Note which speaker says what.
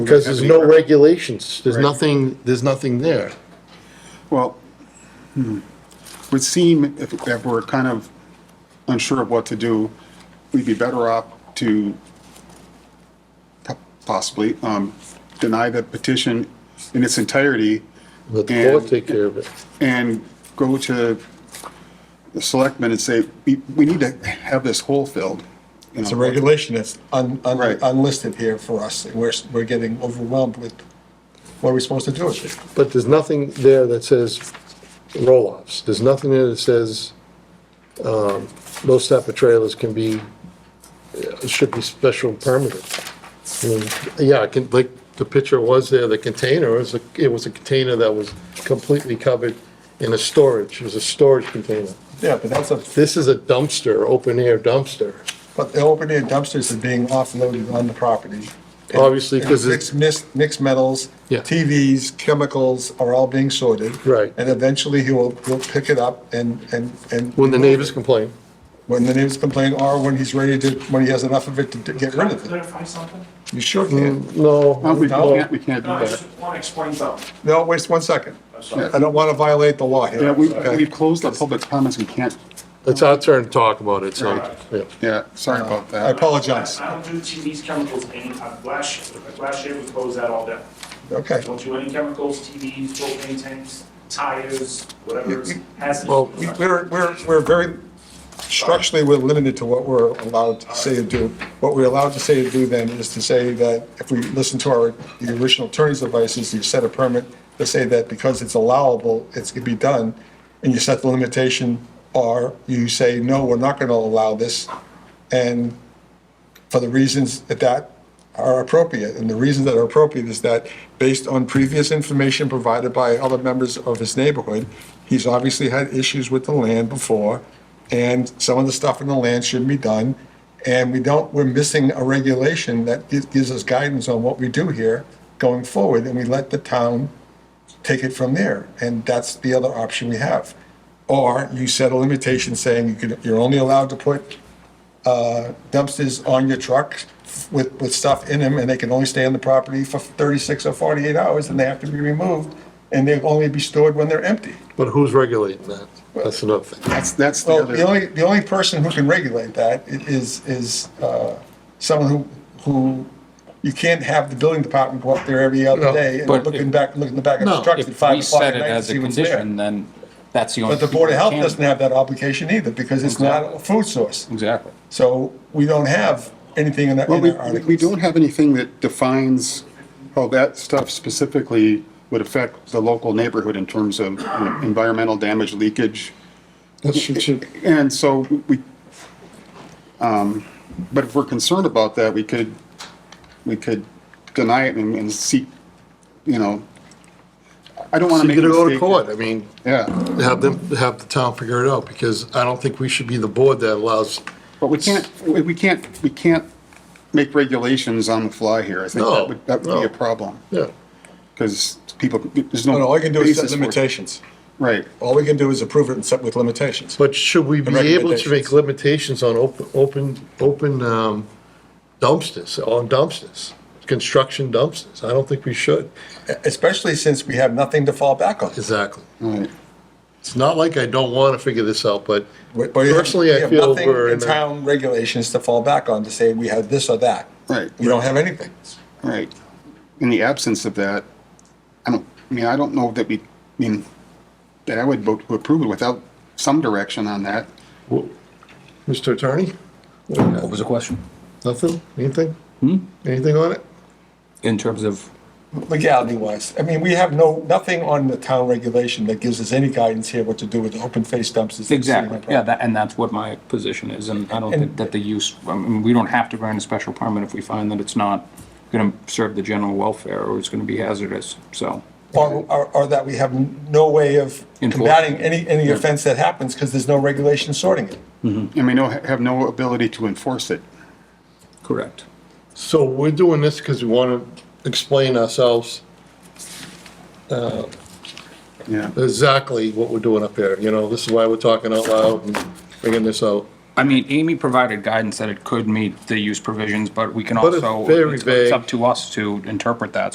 Speaker 1: Because there's no regulations, there's
Speaker 2: Right.
Speaker 1: nothing, there's nothing there.
Speaker 3: Well, hmm, would seem if, if we're kind of unsure of what to do, we'd be better off to po- possibly, um, deny the petition in its entirety
Speaker 1: Let the court
Speaker 3: And-
Speaker 1: take care of it.
Speaker 3: and go to the selectmen and say, we, we need to have this hole filled. you
Speaker 2: It's a
Speaker 3: know.
Speaker 2: regulation that's un, un,
Speaker 3: Right.
Speaker 2: unlisted here for us, and we're, we're getting overwhelmed with what are we supposed to do with it?
Speaker 1: But there's nothing there that says roll-offs. There's nothing there that says, um, those type of trailers can be, uh, should be special permitted. I mean, Yeah, I can, like, the picture was there, the container, it was, a- it was a container that was completely covered in a storage, it was a storage container.
Speaker 2: Yeah, but that's a,
Speaker 1: This is a dumpster, open-air dumpster.
Speaker 2: but the open air dumpsters are being offloaded on the property.
Speaker 1: Obviously, 'cause it-
Speaker 2: Mixed, mixed, mixed metals,
Speaker 1: Yeah.
Speaker 2: TVs, chemicals are all being sorted.
Speaker 1: Right.
Speaker 2: And eventually he will, he'll pick it up and, and, and.
Speaker 1: When the neighbors complain,
Speaker 2: When the neighbors complain, or when he's ready to, when he has enough of it to d- get
Speaker 4: Can
Speaker 2: rid
Speaker 4: I
Speaker 2: of it.
Speaker 4: clarify something?
Speaker 2: You sure can.
Speaker 1: Mm, no.
Speaker 3: Well, we
Speaker 2: No.
Speaker 3: can't, we can't do
Speaker 4: No, I
Speaker 3: that.
Speaker 4: just want to explain something.
Speaker 2: No, wait one second.
Speaker 4: sorry.
Speaker 2: I don't want to violate the law here.
Speaker 3: Yeah, we,
Speaker 2: Okay.
Speaker 3: we've closed the public comments, we can't,
Speaker 1: It's our turn to talk about it, so,
Speaker 3: Right.
Speaker 1: yeah.
Speaker 3: yeah, sorry about
Speaker 2: I
Speaker 3: that.
Speaker 2: apologize.
Speaker 4: I I don't do TVs, chemicals, and uh, glass shit. Glass shit, we close that all down.
Speaker 2: Okay.
Speaker 4: Don't do any chemicals, TVs, propane tanks, tires, whatever is hazardous.
Speaker 2: Well, we- we're, we're, we're very, structurally, we're limited to what we're allowed to say and do. What we're allowed to say and do then is to say that if we listen to our, the original attorney's advices, you set a permit to say that because it's allowable, it's gonna be done, and you set the limitation, or you say, no, we're not gonna allow this, and for the reasons that that are appropriate. And the reasons that are appropriate is that, based on previous information provided by other members of his neighborhood, he's obviously had issues with the land before, and some of the stuff in the land shouldn't be done. And we don't, we're missing a regulation that gi- gives us guidance on what we do here going forward, and we let the town take it from there. And that's the other option we have. Or you set a limitation saying you can, you're only allowed to put dumpsters on your truck with, with stuff in them, and they can only stay on the property for 36 or 48 hours, and they have to be removed, and they'll only be stored when they're empty.
Speaker 1: But who's regulating that? That's another thing.
Speaker 3: That's, that's the
Speaker 2: Well, the
Speaker 3: other,
Speaker 2: only, the only person who can regulate that i- is, is uh, someone who, who, you can't have the building department go up there every other
Speaker 1: No,
Speaker 2: day and
Speaker 5: but
Speaker 2: looking
Speaker 5: if-
Speaker 2: back, looking the back of the
Speaker 5: No,
Speaker 2: truck at
Speaker 5: If we
Speaker 2: 5 o'clock at
Speaker 5: set it
Speaker 2: night to
Speaker 5: as a
Speaker 2: see what's there.
Speaker 5: condition, then that's the only.
Speaker 2: But the Board of Health
Speaker 5: people that
Speaker 2: doesn't
Speaker 5: can-
Speaker 2: have that obligation either, because it's not a food source.
Speaker 5: Exactly.
Speaker 2: So we don't have anything in our
Speaker 3: well,
Speaker 2: in
Speaker 3: we,
Speaker 2: our articles.
Speaker 3: we don't have anything that defines how that stuff specifically would affect the local neighborhood in terms of you know, environmental damage, leakage. And so we, um, but if we're concerned about that, we could, we could deny it and, and seek, you know, I don't want
Speaker 1: So
Speaker 3: to
Speaker 1: you
Speaker 3: make a
Speaker 1: gotta
Speaker 3: mistake.
Speaker 1: go to court, I mean,
Speaker 3: Yeah,
Speaker 1: have them, have the town figure it out, because I don't think we should be the board that allows,
Speaker 3: but we can't, we we can't, we can't make regulations on the fly here. I think
Speaker 1: No,
Speaker 3: that would, that would
Speaker 1: no.
Speaker 3: be a problem,
Speaker 1: yeah.
Speaker 3: because people, there's
Speaker 2: No,
Speaker 3: no.
Speaker 2: no, all you can do is set
Speaker 3: basis for-
Speaker 2: limitations.
Speaker 3: Right,
Speaker 2: All we can do is approve it and set with limitations.
Speaker 1: But should we be able to make
Speaker 2: Recommendations.
Speaker 1: limitations on open, open, open um, dumpsters, on dumpsters? Construction dumpsters, I don't think we should.
Speaker 2: Especially since we have nothing to fall back on.
Speaker 1: Exactly.
Speaker 3: right.
Speaker 1: It's not like I don't wanna figure this out, but
Speaker 2: We- we have-
Speaker 1: personally,
Speaker 2: we
Speaker 1: I
Speaker 2: have
Speaker 1: feel
Speaker 2: nothing
Speaker 1: we're
Speaker 2: in
Speaker 1: in a.
Speaker 2: Town regulations to fall back on to say we have this or that.
Speaker 3: Right.
Speaker 2: We don't have anything.
Speaker 3: Right. In the absence of that, I don't, I mean, I don't know that we, I mean, that I would vote to approve it without some direction on that.
Speaker 1: Mr. Attorney,
Speaker 5: What was the question?
Speaker 1: nothing, anything? Anything on it?
Speaker 5: In terms of,
Speaker 2: Legality wise, I mean, we have no, nothing on the town regulation that gives us any guidence here what to do with open face dumpsters. that sit on
Speaker 5: exactly,
Speaker 2: the
Speaker 5: yeah, that, and that's what my position is, and I don't think that the use, I mean, we don't have to grant a special permit if we find that it's not gonna serve the general welfare or it's gonna be hazardous, so.
Speaker 2: Or, or, or that we have no way of
Speaker 5: Enforcing.
Speaker 2: combating any, any offense that happens because there's no regulation sorting it.
Speaker 3: And we know, have no ability to enforce it.
Speaker 5: Correct.
Speaker 1: So we're doing this because we want to explain ourselves
Speaker 3: Yeah.
Speaker 1: exactly what we're doing up here, you know, this is why we're talking out loud and bringing this out.
Speaker 5: I mean, Amy provided guidance that it could meet the use provisions, but we can
Speaker 1: But it's
Speaker 5: also,
Speaker 1: very
Speaker 5: it's
Speaker 1: vague.
Speaker 5: it's up to us to interpret that.